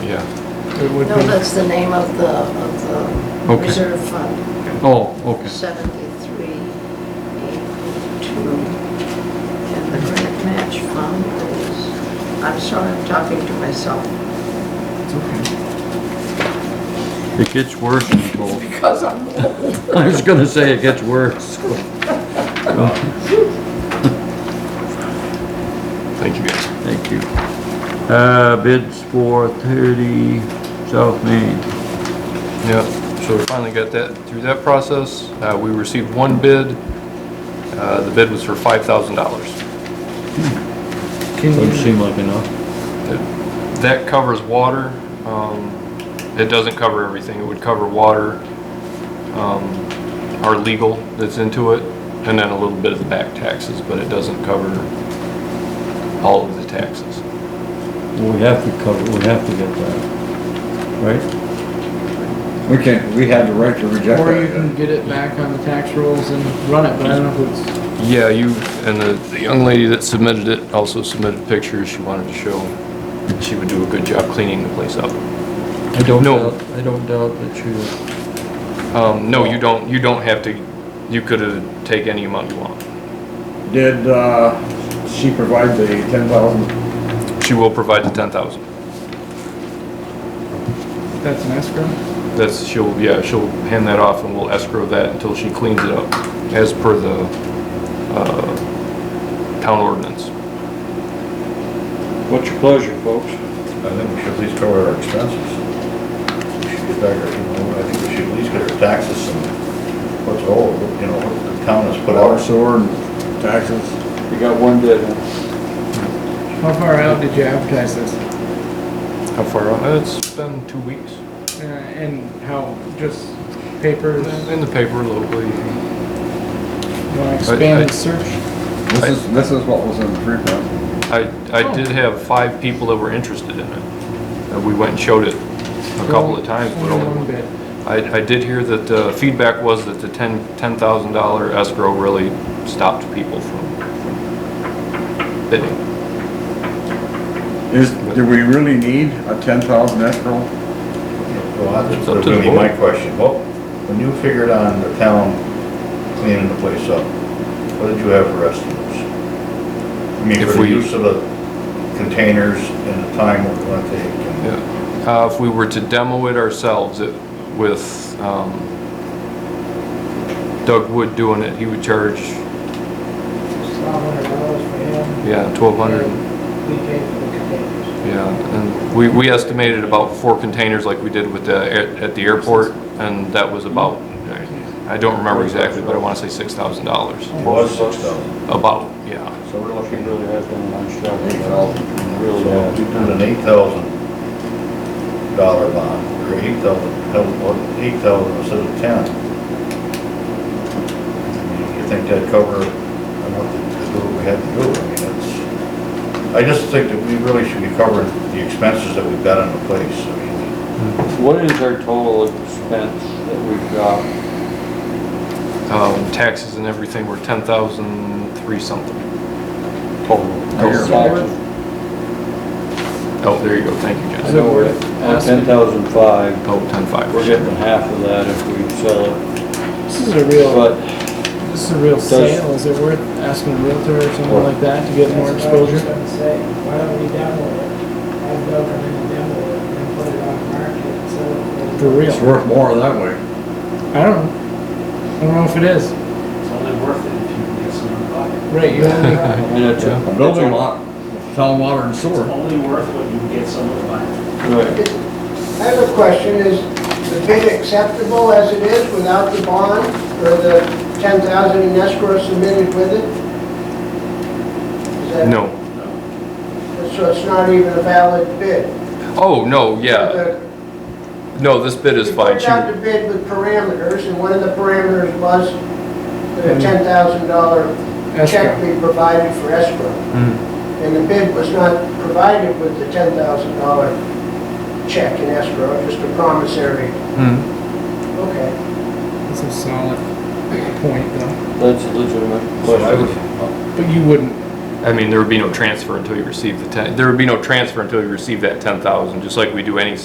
Yeah. It would No, be, that's the name of the, of the Okay. reserve fund, Oh, okay. seventy-three, eight, two. And the grant match fund is, I'm sorry, I'm talking to myself, it's okay. It gets worse, Nicole. because I'm old. I was gonna say it gets worse. Thank you guys. Thank you. Uh, bids for thirty South Main. Yeah, so we finally got that, through that process. Uh, We received one bid. Uh, The bid was for $5,000. Can Doesn't you, seem like enough. That- That covers water. Um, It doesn't cover everything. It would cover water, um, our legal that's into it, and then a little bit of the back taxes, but it doesn't cover all of the taxes. We have to cover, we have to get that, right? We can, we had the right to reject or you can that. get it back on the tax rolls and run it, but I don't know if it's, Yeah, you, and the, the young lady that submitted it also submitted pictures. She wanted to show she would do a good job cleaning the place up. I don't No. doubt, I don't doubt that you, Um, no, you don't, you don't have to, you could take any amount you want. Did, uh, she provide the ten thousand? She will provide the ten thousand. that's an escrow? That's, she'll, yeah, she'll hand that off and we'll escrow that until she cleans it up, as per the, uh, town ordinance. what's your pleasure, folks? I think we should at least cover our expenses. We should get back, our- you know, I think we should at least get our taxes and what's owed, you know, what the town has put Water, out. sewer, and taxes? We got one bid. How far out did you advertise this? How far out? Uh, It's been two weeks. Uh, And how, just papers, In the paper locally. wanna I- expand the search? This is, this is what was in the free press. I, Oh. I did have five people that were interested in it. Uh, we went and showed it a couple of times, but Only one only, bid. I, I did hear that the feedback was that the ten, ten thousand dollar escrow really stopped people from from bidding. Is, do we really need a ten thousand escrow? Well, that's It's up to the gonna be my board. question. Well, when you figured on the town cleaning the place up, what did you have for estimates? I mean, If for the we- use of the containers and the time we're gonna take and- Yeah. Uh, if we were to demo it ourselves, it, with, um, Doug Wood doing it, he would charge, yeah, twelve hundred. We pay for the containers. Yeah, and we, we estimated about four containers like we did with the, air- at the airport, and that was about, I don't remember exactly, but I wanna say six thousand dollars. It was six thousand. About, yeah, So we're looking really at them on Shelby, really So you put an eight thousand dollar bond, or eight thousand, eight thousand instead of ten. I mean, You think that'd cover enough to do what we had to do? I mean, it's, I just think that we really should be covering the expenses that we've got on the place. I mean, What is our total expense that we've got? um, taxes and everything were ten thousand three something. Total taxes? Oh, there you go, thank you, Is Jess. it worth Ten asking? thousand five, Oh, ten five. we're getting half of that if we sell it, This is a oh- real, but this is a real sale, is it worth asking a realtor or someone like that to get more That's what I was exposure? gonna say, why don't we demo it? Have Doug come in and demo it and put it on the market and sell it. For real? It's worth more that way. I don't know. I don't know if it is. It's only worth it if you can get someone to buy it. Right, you only, and it's a. A building lot, town water and It's sewer. only worth what you can get someone to buy. Right, I have a question, is the bid acceptable as it is without the bond or the ten thousand in escrow submitted with it? Is that- No, So it's not even a valid bid? oh, no, yeah, The- no, this bid is fine, You put out she, the bid with parameters, and one of the parameters was that a ten thousand dollar check escrow. be provided for escrow. And the bid was not provided with the ten thousand dollar check in escrow, just a promissory, Hmm, okay. That's a solid point though. that's a legitimate So I question. would, But you wouldn't Mm-hmm. I mean, there would be no transfer until you receive the ten, there would be no transfer until you receive that ten thousand, just like we do any